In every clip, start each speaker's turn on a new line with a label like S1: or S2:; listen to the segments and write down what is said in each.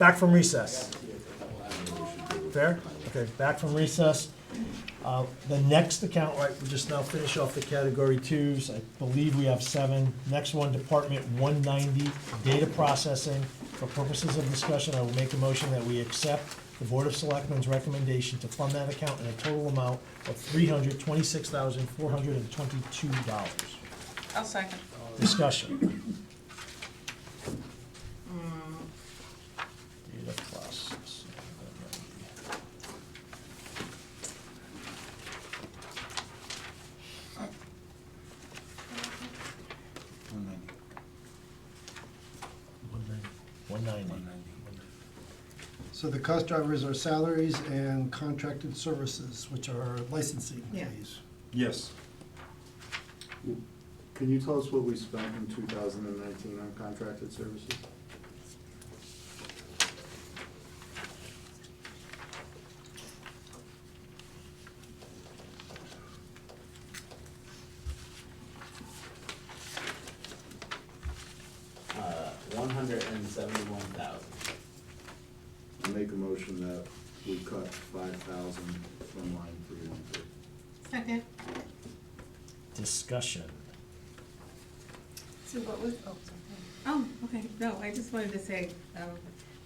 S1: Back from recess. Fair? Okay, back from recess. Uh, The next account, right, we just now finish off the category twos. I believe we have seven. Next one, Department one ninety, data processing. For purposes of discussion, I will make a motion that we accept the Board of Selectmen's recommendation to fund that account in a total amount of three hundred twenty-six thousand, four hundred and twenty-two dollars.
S2: I'll second.
S1: Discussion. Data process.
S3: One ninety.
S1: One ninety.
S4: So the cost drivers are salaries and contracted services, which are licensing
S2: Yeah.
S4: fees.
S3: Yes.
S5: Can you tell us what we spent in two thousand and nineteen on contracted services?
S6: Uh, one hundred and seventy-one thousand.
S5: I Make a motion that we cut five thousand from line three one three.
S2: Second.
S1: Discussion.
S2: So what was, oh, sorry. oh, okay, no, I just wanted to say, um,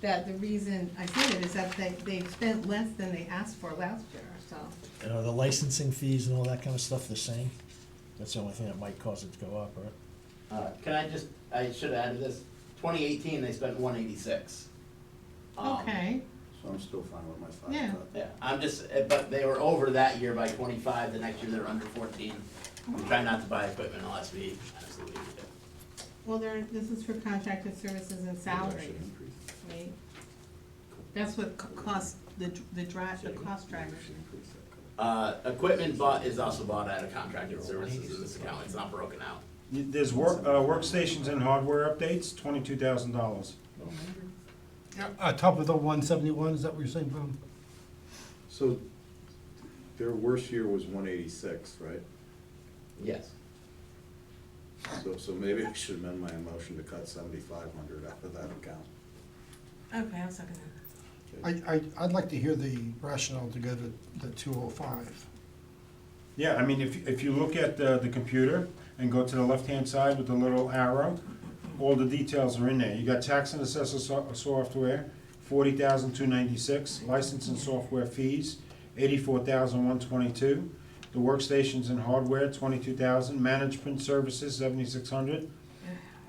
S2: that the reason I said it is that they, they've spent less than they asked for last year, so.
S1: And are the licensing fees and all that kind of stuff the same? That's the only thing that might cause it to go up, right?
S6: Uh, can I just, I should have added this, twenty eighteen, they spent one eighty-six. Um,
S2: Okay,
S5: So I'm still fine with my
S2: Yeah.
S5: five cut.
S6: Yeah, I'm just, uh, but they were over that year by twenty-five, the next year they're under fourteen. We try not to buy equipment unless we absolutely need it.
S2: well, there, this is for contracted services and
S5: Should
S2: salaries,
S5: increase.
S2: right? That's what co- cost, the, the drive, the cost drivers.
S5: Should increase that cut.
S6: Uh, equipment bought is also bought out of contracted services in this account, it's not broken out.
S3: Y- There's work, uh, workstations and hardware updates, twenty-two thousand dollars.
S4: On Uh, top of the one seventy-one, is that what you're saying, Bob?
S5: So their worst year was one eighty-six, right?
S6: Yes.
S5: So, so maybe I should amend my motion to cut seventy-five hundred out of that account.
S2: Okay, I'll second that.
S4: I, I, I'd like to hear the rationale to go to the two oh five.
S3: Yeah, I mean, if, if you look at the, the computer and go to the left-hand side with the little arrow, all the details are in there. You got tax and assessor so- software, forty thousand two ninety-six, license and software fees, eighty-four thousand one twenty-two. The workstations and hardware, twenty-two thousand, management services, seventy-six hundred.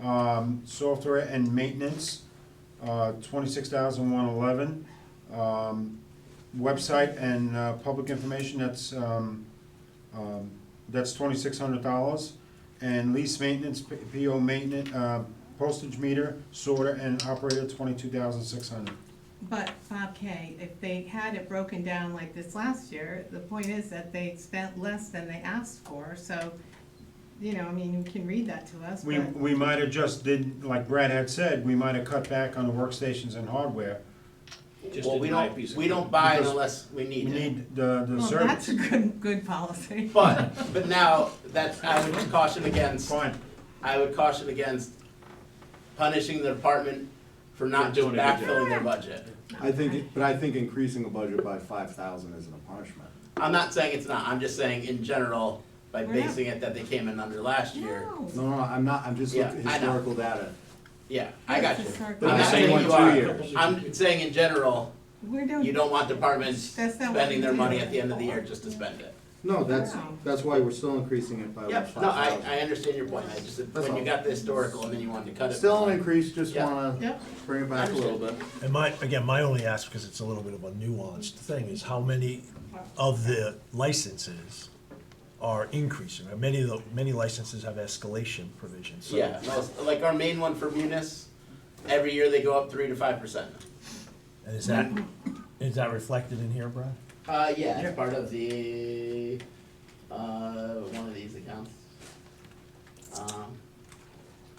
S3: Um, software and maintenance, uh, twenty-six thousand one eleven. Um, website and, uh, public information, that's, um, um, that's twenty-six hundred dollars. And lease maintenance, P- PO maintenance, uh, postage meter, sorter, and operator, twenty-two thousand six hundred.
S2: But Bob K, if they had it broken down like this last year, the point is that they spent less than they asked for, so, you know, I mean, you can read that to us,
S3: We,
S2: but,
S3: we might have just did, like Brad had said, we might have cut back on the workstations and hardware.
S7: Just
S6: Well,
S7: a
S6: we
S7: denied
S6: don't,
S7: piece of
S6: we don't
S7: equipment.
S6: buy it
S3: Because
S6: unless we
S3: We
S6: need it.
S3: need the, the
S2: well, that's a
S3: service.
S2: good, good policy.
S6: But, but now, that's, I would caution against
S3: Fine,
S6: I would caution against punishing the department for not
S7: For
S6: just
S7: doing a good
S6: backfilling their budget.
S5: I think, but I think increasing the budget by five thousand isn't a punishment.
S6: I'm not saying it's not, I'm just saying in general, by
S2: We're not-
S6: basing it that they came in under last year.
S2: No.
S5: No, no, I'm not, I'm just looking
S6: Yeah, I know.
S5: at historical data.
S6: Yeah, I got you.
S2: Yes, it's our-
S6: I'm
S5: But
S7: the
S6: not
S7: same
S6: saying
S7: one
S6: you
S5: two
S6: are,
S5: years.
S6: I'm saying in general,
S2: We're
S6: you
S2: doing,
S6: don't want departments
S2: That's not what
S6: spending their
S2: we do.
S6: money at the end of the year just to spend it.
S5: No, that's,
S2: Wow.
S5: that's why we're still increasing it by five
S6: Yep, no, I, I
S5: thousand.
S6: understand your point, I just,
S5: That's
S6: when you
S5: all.
S6: got the historical and then you wanted to cut it.
S5: Still an increase, just
S6: Yeah.
S5: wanna
S2: Yep.
S5: bring it back a little bit.
S1: And my, again, my only ask, because it's a little bit of a nuanced thing, is how many of the licenses are increasing? Right? Many of the, many licenses have escalation provisions, so.
S6: Yeah, most- like our main one for Munis, every year they go up three to five percent.
S1: And is that, is that reflected in here, Brad?
S6: Uh, yeah, it's part of the, uh, one of these accounts. Um,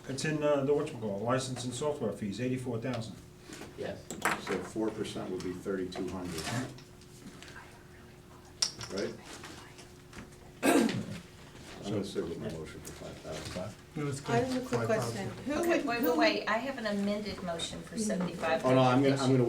S3: it's in, uh, the whatchamacallit, license and software fees, eighty-four thousand.
S6: yes,
S5: So four percent would be thirty-two hundred. Right? I'm gonna sit with my motion for five thousand.
S4: It was
S7: I have a quick
S4: five thousand.
S7: question. Who
S8: Okay,
S7: would,
S8: wait,
S7: who
S8: wait,
S7: would
S8: wait, I have an amended motion for seventy-five.
S5: Oh, no, I'm gonna, I'm gonna